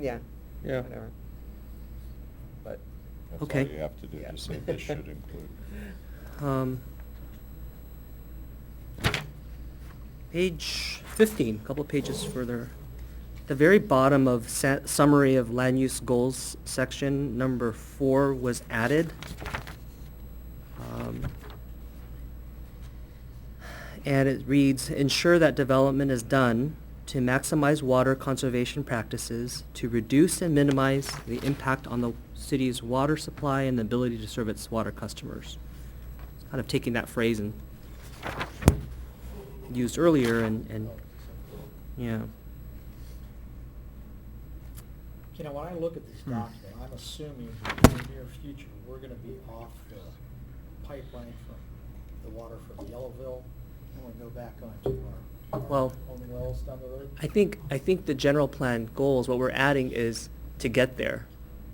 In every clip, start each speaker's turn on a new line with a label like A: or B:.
A: yeah,
B: yeah.
A: whatever. But,
C: That's all
B: Okay.
C: you have to do,
A: Yeah.
C: just say this should include.
B: Um, Page fifteen, a couple of pages further, the very bottom of sa- summary of land use goals section, number four was added. Um, And it reads, ensure that development is done to maximize water conservation practices, to reduce and minimize the impact on the city's water supply and the ability to serve its water customers kind of taking that phrase and used earlier and, and, yeah.
D: You know, when I look at this
B: Hmm.
D: document, I'm assuming that in the near future, we're gonna be off the pipeline from the water from Yellowville, and we go back onto our, our
B: Well-
D: own wells down the road.
B: I think, I think the general plan goals, what we're adding is to get there.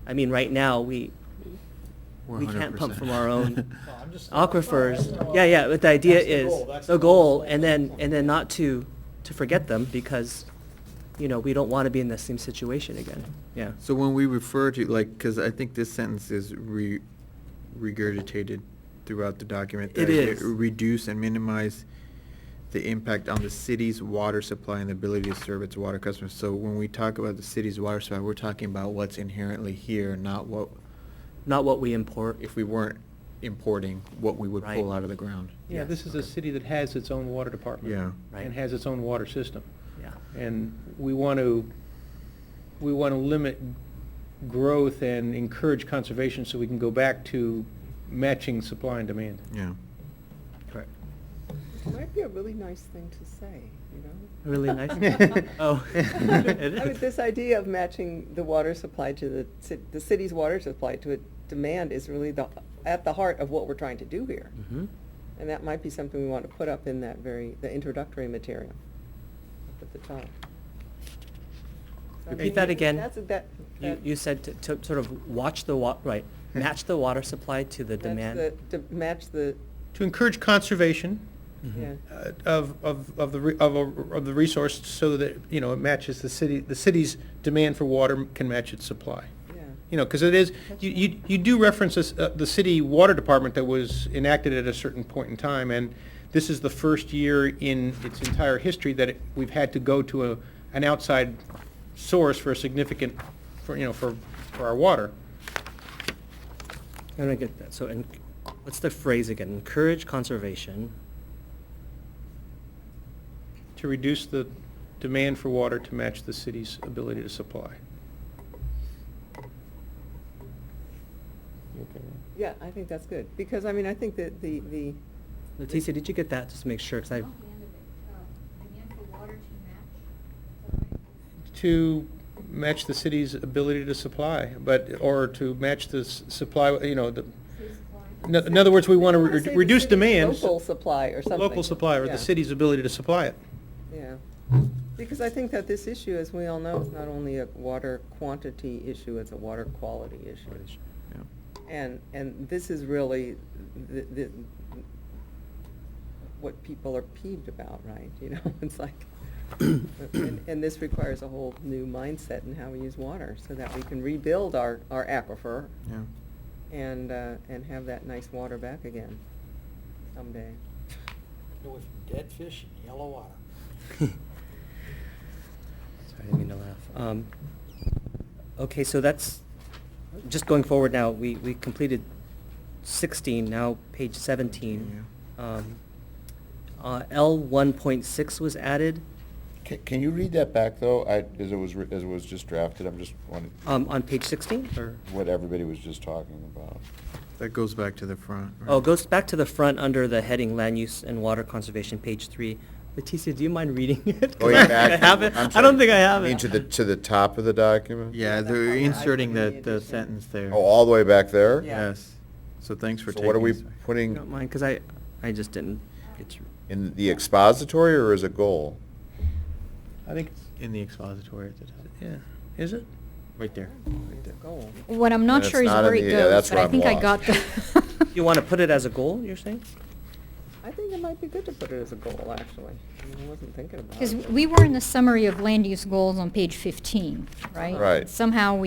B: I mean, right now, we, we can't pump from our own
D: No, I'm just-
B: aquifers. Yeah, yeah, but the idea
D: That's the
B: is,
D: goal, that's
B: the
D: the
B: goal,
D: goal.
B: and then, and then not to, to forget them because, you know, we don't want to be in the same situation again, yeah.
E: So when we refer to, like, because I think this sentence is re- regurgitated throughout the document.
B: It
E: that
B: is.
E: Reduce and minimize the impact on the city's water supply and the ability to serve its water customers. So when we talk about the city's water supply, we're talking about what's inherently here, not what,
B: Not what we import.
E: if we weren't importing, what we would
B: Right.
E: pull out of the ground.
B: Yeah. Yeah.
F: Yeah, this is a city that has its own water department.
E: Yeah.
B: Right.
F: And has its own water system.
B: Yeah.
F: And we want to, we want to limit growth and encourage conservation so we can go back to matching supply and demand.
E: Yeah.
B: Correct.
A: it might be a really nice thing to say, you know?
B: Really nice.
A: Oh.
B: Oh. It
A: I mean,
B: is.
A: this idea of matching the water supply to the, ci- the city's water supply to a demand is really the, at the heart of what we're trying to do here.
B: Mhm.
A: And that might be something we want to put up in that very, the introductory material up at the top.
B: Repeat that again.
A: That's, that.
B: You,
A: that-
B: you said to, to sort of watch the wa, right, match the water supply to the
A: that's
B: demand.
A: the- To match the,
F: To encourage conservation
B: Mhm.
A: yeah.
F: uh, of, of, of the, re- of, a- of the resource so that, you know, it matches the city, the city's demand for water can match its supply.
A: Yeah.
F: You know, because it is, you, you, you do reference this, uh, the city water department that was enacted at a certain point in time, and this is the first year in its entire history that it- we've had to go to a, an outside source for a significant, for, you know, for, for our water.
B: I don't get that. So, en- what's the phrase again? Encourage conservation.
F: To reduce the demand for water to match the city's ability to supply.
C: You okay with
A: Yeah, I think that's good, because, I mean, I think that the, the,
B: Leticia, did you get that? Just to make sure, because
G: Oh,
B: I,
G: the end of it. Uh, Demand for water to match. Is that right?
F: To match the city's ability to supply, but, or to match the s- supply, you know, the,
G: City supply.
F: in in other words, we want to
A: I wanna say the
F: reduce
A: city's
F: demand.
A: Local supply or something.
F: local supplier, or
A: Yeah,
F: the city's ability to supply it.
A: Yeah, because I think that this issue, as we all know, is not only a water quantity issue, it's a water quality issue.
E: Yeah.
A: And, and this is really the, the, what people are peeved about, right? You know, it's like, and, and this requires a whole new mindset in how we use water, so that we can rebuild our, our aquifer
E: Yeah.
A: and, uh, and have that nice water back again someday.
D: Go with dead fish and yellow water.
B: sorry, I didn't mean to laugh. Um, okay, so that's just going forward now. We we completed sixteen. Now page seventeen. Um, uh, L one point six was added.
C: Can, can you read that back, though? I, as it was, re- as it was just drafted, I'm just wondering
B: Um, on page sixteen, or?
C: what everybody was just talking about.
E: That goes back to the front. right?
B: Oh, it goes back to the front under the heading Land Use and Water Conservation, page three. Leticia, do you mind reading it? 'Cause
C: Oh,
B: I
C: yeah,
B: don't think
C: back-
B: I have it.
C: I'm
B: I don't
C: sorry.
B: think I have
C: You mean
B: it.
C: to the, to the top of the document?
E: Yeah,
A: That's all
E: they're
A: right.
E: inserting
A: I
E: the,
A: put
E: the
A: it in.
E: sentence there.
C: Oh, all the way back there?
A: Yeah.
E: Yes. So thanks for
C: So
E: taking.
C: what are we
E: us-
B: I
C: putting
B: Don't mind, because I, I just didn't get to.
C: in the expository or as a goal?
F: I think,
E: In the expository at the top.
F: yeah, is it?
E: Right there.
A: It's a goal.
H: What I'm not
C: That's
H: sure is
C: not in
H: where
C: the-
H: it
C: yeah, that's
H: goes, but
C: where
H: I
C: I'm
H: think I
C: lost.
H: got the.
B: You want to put it as a goal, you're saying?
A: I think it might be good to put it as a goal, actually. I mean, I wasn't thinking about it.
H: Because we were in the summary of land use goals on page 15, right?
C: Right.
H: Somehow we